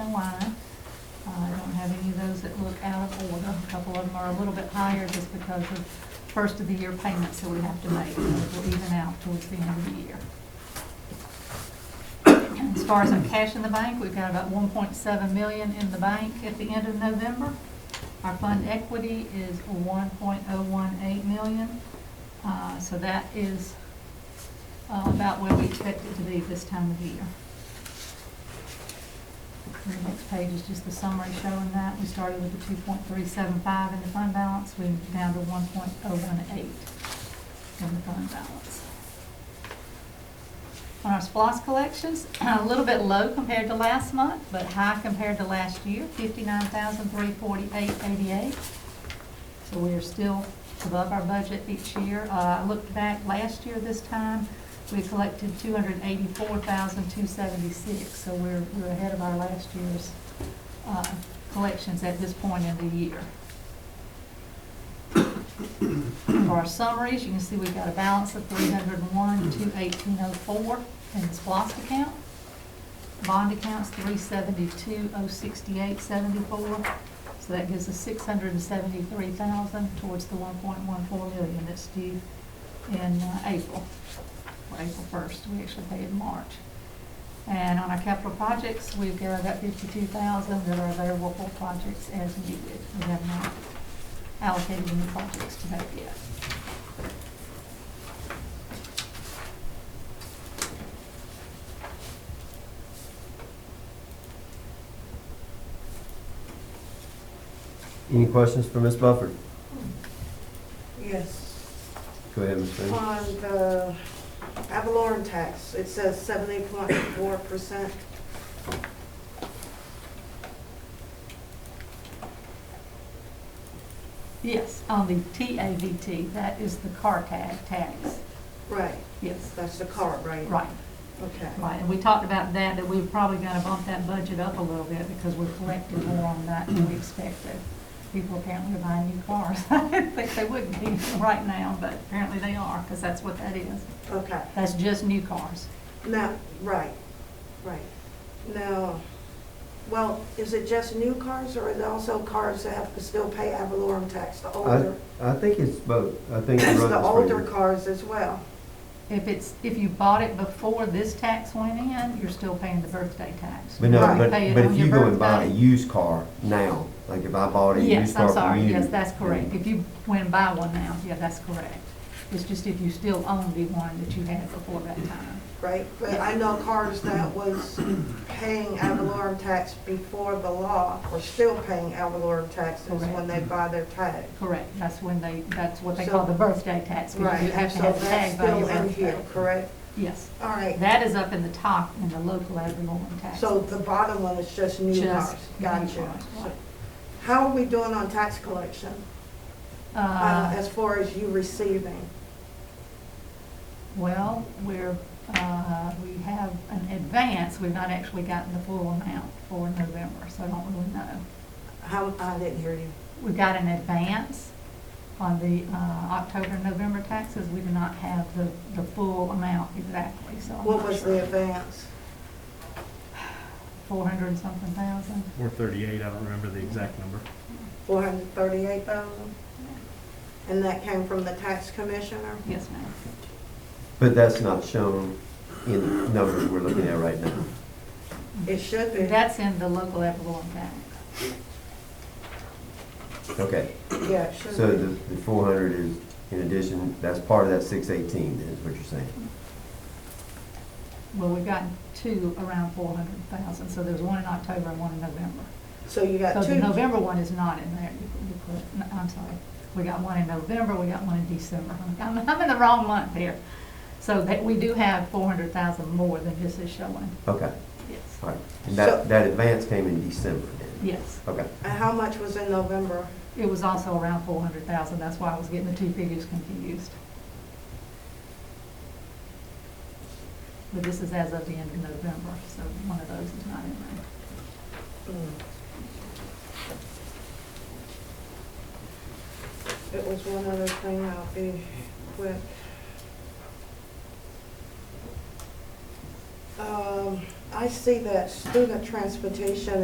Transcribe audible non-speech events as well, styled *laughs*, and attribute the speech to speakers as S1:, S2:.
S1: Carolina. Uh, I don't have any of those that look out of order. A couple of them are a little bit higher just because of first of the year payments that we have to make. Those will even out towards the end of the year. And As far as our cash in the bank, we've got about one point seven million in the bank at the end of November. Our fund equity is one point oh one eight million. Uh, So that is uh, about where we expect it to be this time of year. And The next page is just the summary showing that. We started with the two point three seven five in the fund balance, we're down to one point oh one eight in the fund balance. On our SPOS collections, *clears throat* a little bit low compared to last month, but high compared to last year, fifty-nine thousand three forty-eight eighty-eight. So we are still above our budget each year. Uh, I looked back last year this time, we collected two hundred eighty-four thousand two seventy-six, so we're, we're ahead of our last year's, uh, collections at this point in the year. For our summaries, you can see we've got a balance of three hundred and one, two eighteen oh four in the SPOSS account. Bond account's three seventy-two, oh sixty-eight seventy-four, so that gives us six hundred and seventy-three thousand towards the one point one four million that's due in uh, April, or April first, we actually pay in March. And on our capital projects, we've got about fifty-two thousand that are available for projects as needed. We have not allocated any projects to that yet.
S2: Any questions for Ms. Bufford?
S3: Yes,
S2: Go ahead, Ms. Green.
S1: Um,
S3: on the Avalon tax, it says seventy point four percent.
S1: Yes, on the TAVT, that is the car tag tax.
S3: Right,
S1: Yes,
S3: that's the car, right?
S1: right,
S3: Okay,
S1: right. And we talked about that, that we were probably going to bump that budget up a little bit because we're collecting more on that than we expected. People apparently are buying new cars. *laughs* I didn't think they would be right now, but apparently they are because that's what that is.
S3: okay.
S1: That's just new cars.
S3: Now, right, right. Now, well, is it just new cars or is it also cars that have to still pay Avalon tax, the older?
S2: I think it's both. I think it
S3: It's
S2: runs
S3: the older
S2: right.
S3: cars as well.
S1: If it's, if you bought it before this tax went in, you're still paying the birthday tax.
S2: But no,
S3: Right.
S2: but,
S1: Pay it
S2: but
S1: on
S2: if you
S1: your
S2: go and buy a
S1: birthday.
S2: used car now, like if I bought a used
S1: Yes,
S2: car
S1: I'm
S2: from
S1: sorry,
S2: you.
S1: yes, that's correct. If you went and buy one now, yeah, that's correct. It's just if you still own the one that you had before that time.
S3: right? But I know cars that was paying ad valorem tax before the law are still paying ad valorem taxes when they buy their tag.
S1: Correct, that's when they, that's what they call the birthday tax. because
S3: Right,
S1: You have to
S3: so
S1: have the
S3: that's
S1: tag by your
S3: still in here,
S1: birthday.
S3: correct?
S1: Yes,
S3: All right,
S1: that is up in the top in the local ad valorem tax.
S3: so the bottom one is just new
S1: Just
S3: cars.
S1: new
S3: Gotcha.
S1: cars, right.
S3: How are we doing on tax collection, uh,
S1: Uh,
S3: as far as you receiving?
S1: Well, we're, uh, we have an advance, we've not actually gotten the full amount for November, so I don't really know.
S3: How, I didn't hear you.
S1: We got an advance on the uh, October, and November taxes, we do not have the, the full amount exactly, so I'm
S3: What
S1: not
S3: was
S1: sure.
S3: the advance?
S1: Four hundred and something thousand?
S4: Or 38, I don't remember the exact number.
S3: Four hundred thirty-eight thousand? And that came from the tax commissioner?
S1: Yes, ma'am.
S2: But that's not shown in the numbers we're looking at right now.
S3: It should be.
S1: That's in the local ad valorem tax.
S2: Okay,
S3: Yeah, it should
S2: so
S3: be.
S2: the, the four hundred is in addition, that's part of that six eighteen is what you're saying.
S1: Well, we've gotten two around four hundred thousand, so there's one in October and one in November.
S3: So you
S1: So
S3: got
S1: the
S3: two.
S1: November one is not in there, You- you put- no, I'm sorry. We got one in November, we got one in December. I'm, I'm in the wrong month here. So that, we do have four hundred thousand more than this is showing,
S2: Okay,
S1: yes.
S2: all right. And
S3: So-
S2: that, that advance came in December then?
S1: Yes,
S2: Okay,
S3: And how much was in November?
S1: it was also around four hundred thousand, that's why I was getting the two figures confused. But this is as of the end of November, so one of those is not in there.
S3: It was one other thing, I'll be quick. Um, I see that student transportation